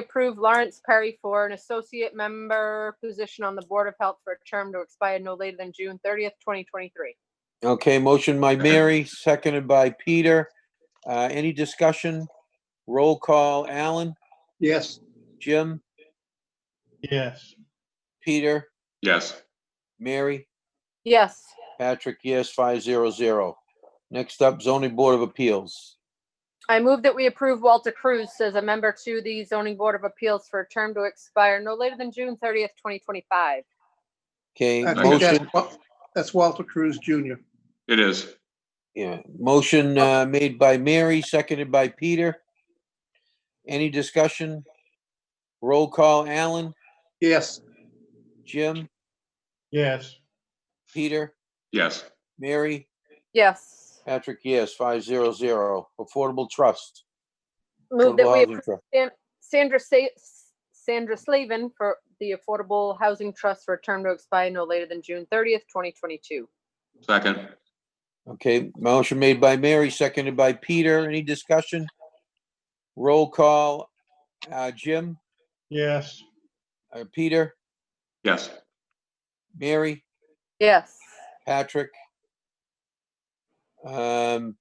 approve Lawrence Perry for an associate member position on the Board of Health for a term to expire no later than June thirtieth, twenty twenty-three. Okay, motion by Mary, seconded by Peter. Uh, any discussion? Roll call, Alan, Yes. Jim, yes, Peter, yes, Mary, Yes, Patrick, yes, five zero zero. Next up, zoning board of appeals. I move that we approve Walter Cruz as a member to the Zoning Board of Appeals for a term to expire no later than June thirtieth, twenty twenty-five. Okay, I think motion, that's Wa- That's Walter Cruz Jr. it is. yeah, motion, uh, made by Mary, seconded by Peter. Any discussion? Roll call, Alan, Yes. Jim, yes, Peter, Yes, Mary, Yes, Patrick, yes, five zero zero. Affordable Trust. move that Affordable we Housing approve Trust. Sandra Sa- Sandra Slavin for the Affordable Housing Trust for a term to expire no later than June thirtieth, twenty twenty-two. second, Okay, motion made by Mary, seconded by Peter. Any discussion? Roll call, uh, Jim, yes, uh, Peter, yes, Mary, Yes, Patrick, um,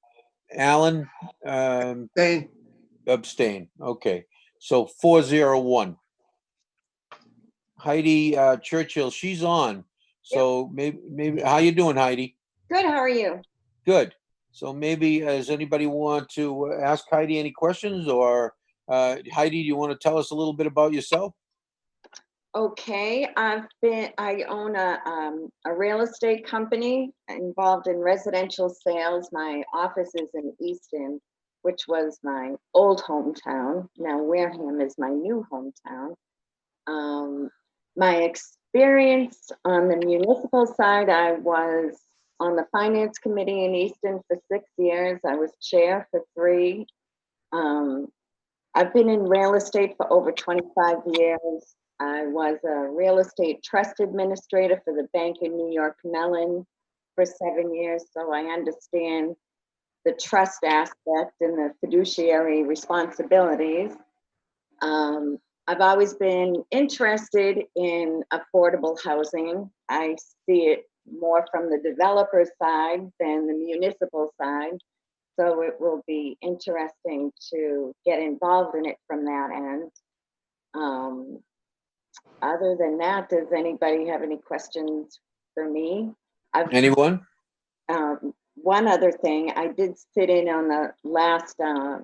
Alan, um, Dane. abstain. Okay, so four zero one. Heidi, uh, Churchill, she's on. So maybe, maybe, how you doing, Heidi? Good, how are you? Good. So maybe, uh, does anybody want to uh, ask Heidi any questions or uh, Heidi, do you want to tell us a little bit about yourself? Okay, I've been, I own a, um, a real estate company involved in residential sales. My office is in Easton, which was my old hometown. Now Wareham is my new hometown. Um, my experience on the municipal side, I was on the finance committee in Easton for six years. I was chair for three. Um, I've been in real estate for over twenty-five years. I was a real estate trust administrator for the bank in New York Mellon for seven years, so I understand the trust aspect and the fiduciary responsibilities. Um, I've always been interested in affordable housing. I see it more from the developer side than the municipal side. So it will be interesting to get involved in it from that end. Um, other than that, does anybody have any questions for me? I've- Anyone? um, One other thing, I did sit in on the last uh,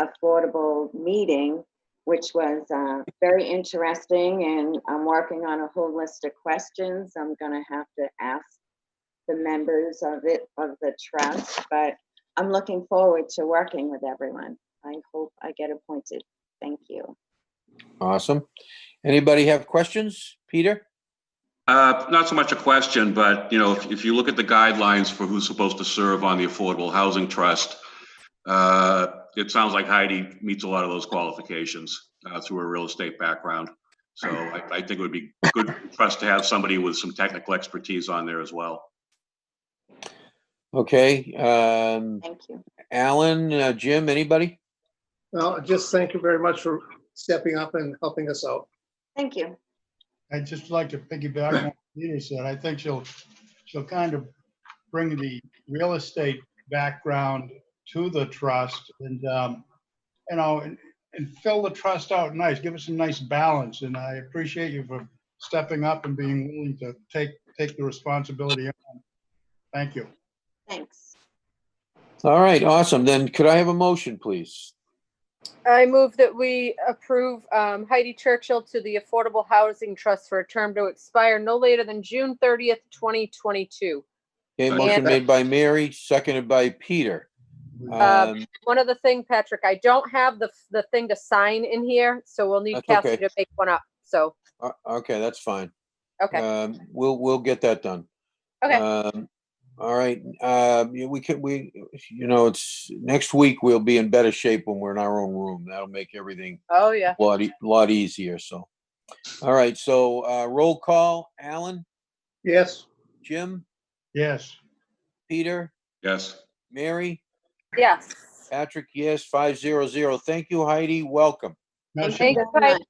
affordable meeting, which was uh, very interesting, and I'm working on a whole list of questions. I'm gonna have to ask the members of it, of the trust, but I'm looking forward to working with everyone. I hope I get appointed. Thank you. Awesome. Anybody have questions? Peter? Uh, Not so much a question, but, you know, if if you look at the guidelines for who's supposed to serve on the Affordable Housing Trust, uh, it sounds like Heidi meets a lot of those qualifications uh, through her real estate background. So I I think it would be good for us to have somebody with some technical expertise on there as well. Okay, um, Thank you. Alan, uh, Jim, anybody? Well, just thank you very much for stepping up and helping us out. Thank you. I'd just like to piggyback on what Peter said, I think she'll, she'll kind of bring the real estate background to the trust and, um, you know, and, and fill the trust out nice, give us some nice balance, and I appreciate you for stepping up and being willing to take, take the responsibility on. Thank you. Thanks. All right, awesome. Then could I have a motion, please? I move that we approve um, Heidi Churchill to the Affordable Housing Trust for a term to expire no later than June thirtieth, twenty twenty-two. Okay, Second. motion made by Mary, seconded by Peter. Uh, Um, One other thing, Patrick, I don't have the, the thing to sign in here, so we'll need That's Cassie okay. to make one up. So, o- uh, Okay, that's fine. okay, Um, We'll, we'll get that done. okay. Um, All right, um, yeah, we could, we, you know, it's, next week we'll be in better shape when we're in our own room. That'll make everything Oh, yeah. a lot, e- lot easier, so. All right, so, uh, roll call, Alan, Yes. Jim, Yes. Peter, Yes, Mary, Yes. Patrick, yes, five zero zero. Thank you, Heidi, welcome. No, she- Thank Thank you, you very Heidi. much.